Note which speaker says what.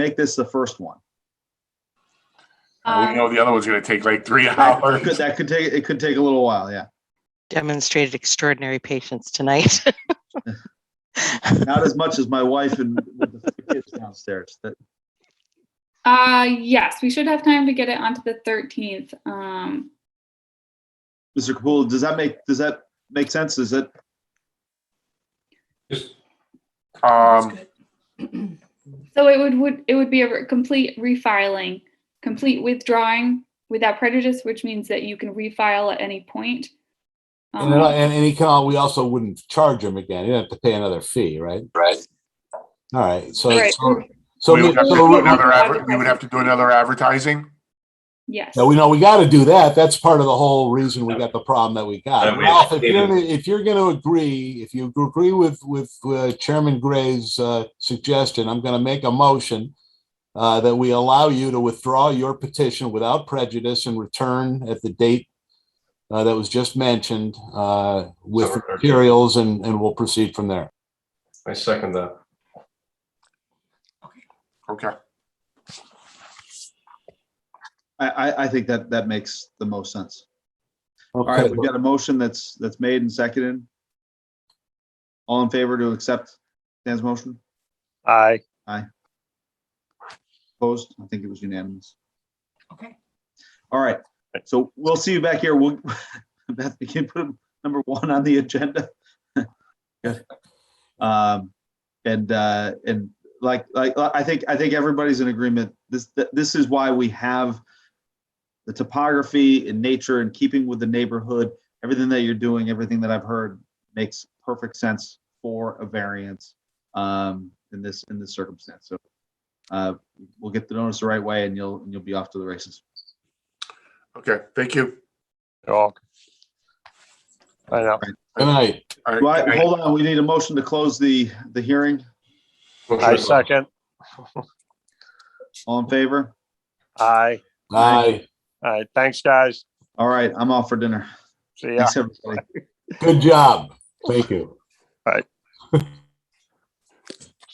Speaker 1: make this the first one.
Speaker 2: Uh, Um,
Speaker 3: We know the other one's gonna take like three
Speaker 1: Could-
Speaker 3: hours.
Speaker 1: That could take, it could take a little while, yeah.
Speaker 4: demonstrated extraordinary patience tonight.
Speaker 1: Not as much as my wife and with the kids downstairs. That,
Speaker 2: Uh, yes, we should have time to get it onto the thirteenth. Um,
Speaker 1: Mr. Kapula, does that make, does that make sense? Is it,
Speaker 3: Um,
Speaker 2: so it would, would, it would be a re- complete refiling, complete withdrawing without prejudice, which means that you can refile at any point.
Speaker 5: And, then-
Speaker 2: Um,
Speaker 5: and, and he can, al- we also wouldn't charge him again. He'd have to pay another fee, right?
Speaker 3: Right.
Speaker 5: All right, so,
Speaker 2: Right.
Speaker 5: so, so,
Speaker 3: We would have to
Speaker 5: so-
Speaker 3: do another adver- we would have to do another advertising.
Speaker 2: Yes.
Speaker 5: no, we know, we gotta do that. That's part of the whole reason we got the problem that we got.
Speaker 6: And we-
Speaker 5: Ralph, if you're, gonna- if you're gonna agree, if you agree with, with uh, Chairman Gray's, uh, suggestion, I'm gonna make a motion uh, that we allow you to withdraw your petition without prejudice and return at the date uh, that was just mentioned, uh, with
Speaker 6: September 30th.
Speaker 5: materials and, and we'll proceed from there.
Speaker 6: I second that.
Speaker 3: Okay.
Speaker 1: I, I, I think that, that makes the most sense. All
Speaker 5: Okay.
Speaker 1: right, we've got a motion that's, that's made and seconded. All in favor to accept Dan's motion?
Speaker 7: Aye.
Speaker 1: Opposed? I think it was unanimous.
Speaker 8: Okay.
Speaker 1: All right, so we'll see you back here. We'll, Beth, we can put number one on the agenda. Good. Um, and, uh, and like, like, I think, I think everybody's in agreement. This, this is why we have the topography and nature and keeping with the neighborhood, everything that you're doing, everything that I've heard makes perfect sense for a variance, um, in this, in this circumstance. So, uh, we'll get the notice the right way and you'll, and you'll be off to the races.
Speaker 3: Okay, thank you.
Speaker 7: You're welcome. I know.
Speaker 5: Good night.
Speaker 3: All right,
Speaker 1: Do I-
Speaker 3: good night.
Speaker 1: hold on, we need a motion to close the, the hearing.
Speaker 7: I second.
Speaker 1: All in favor?
Speaker 7: Aye.
Speaker 5: Aye.
Speaker 7: All right. Thanks, guys.
Speaker 1: All right, I'm off for dinner.
Speaker 7: See ya.
Speaker 1: Thanks, everybody.
Speaker 5: Good job. Thank you.